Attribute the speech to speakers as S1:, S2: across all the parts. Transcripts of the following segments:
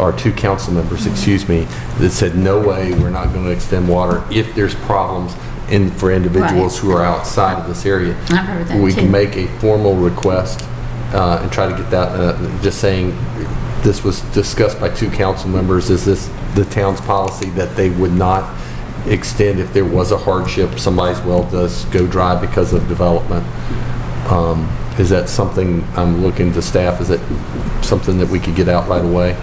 S1: or two council members, excuse me, that said, no way, we're not going to extend water if there's problems in, for individuals who are outside of this area.
S2: I've heard that
S1: We
S2: too.
S1: can make a formal request uh, and try to get that, uh, just saying, this was discussed by two council members, is this the town's policy that they would not extend if there was a hardship, somebody's well does go dry because of development? Um, Is that something, I'm looking to staff, is it something that we could get out right away?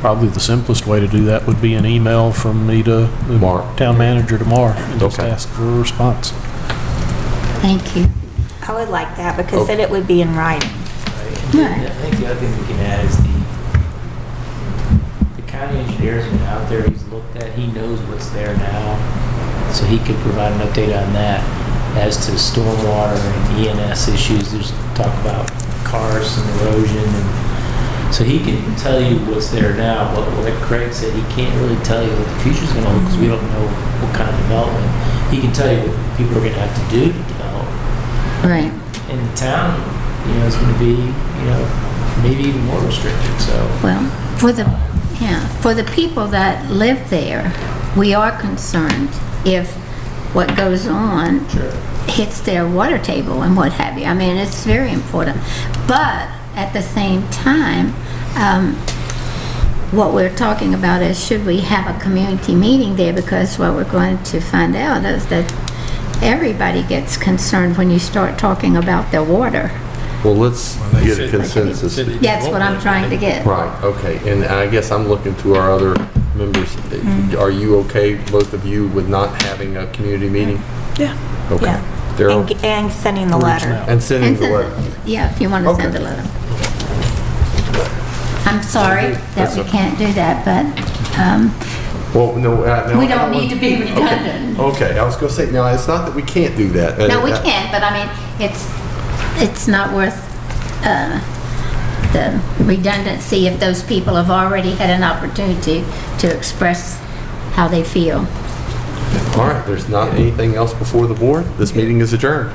S3: Probably the simplest way to do that would be an email from me to the
S1: Mark.
S3: town manager tomorrow and just
S1: Okay.
S3: ask for a response.
S2: Thank you.
S4: I would like that because then it would be in writing.
S2: Right.
S5: I think the other thing we can add is the, the county engineer's been out there, he's looked at, he knows what's there now, so he could provide an update on that. As to stormwater and ENS issues, there's talk about cars and erosion, and, so he can tell you what's there now, but like Craig said, he can't really tell you what the future's gonna hold, because we don't know what kind of development. He can tell you what people are gonna have to do to develop,
S2: Right.
S5: in the town, you know, is going to be, you know, maybe even more restricted. So
S2: Well, for the, yeah, for the people that live there, we are concerned if what goes on
S5: Sure.
S2: hits their water table and what have you. I mean, it's very important. But at the same time, um, what we're talking about is should we have a community meeting there? Because what we're going to find out is that everybody gets concerned when you start talking about their water.
S1: Well, let's
S6: they
S1: get a
S6: said-
S1: consensus.
S6: said-
S2: That's what I'm trying to get.
S1: Right, okay, and I guess I'm looking to our other members.
S4: Mm-hmm.
S1: Are you okay, both of you, with not having a community meeting?
S4: Yeah.
S1: Okay.
S4: Yeah. And,
S1: Daryl?
S4: and sending the letter.
S1: And sending
S2: And
S1: the
S2: send
S1: letter.
S2: the- Yeah, if you want to
S1: Okay.
S2: send a letter. I'm sorry that
S1: That's
S2: we
S1: okay.
S2: can't do that, but um,
S1: Well, no, uh, no.
S2: we
S1: I
S2: don't need
S1: want-
S2: to be redundant.
S1: Okay, I was going to say, now, it's not that we can't do that.
S2: No, we
S1: Uh,
S2: can, but I mean, it's, it's not worth uh, the redundancy if those people have already had an opportunity to express how they feel.
S1: All right, there's not anything else before the board. This meeting is adjourned.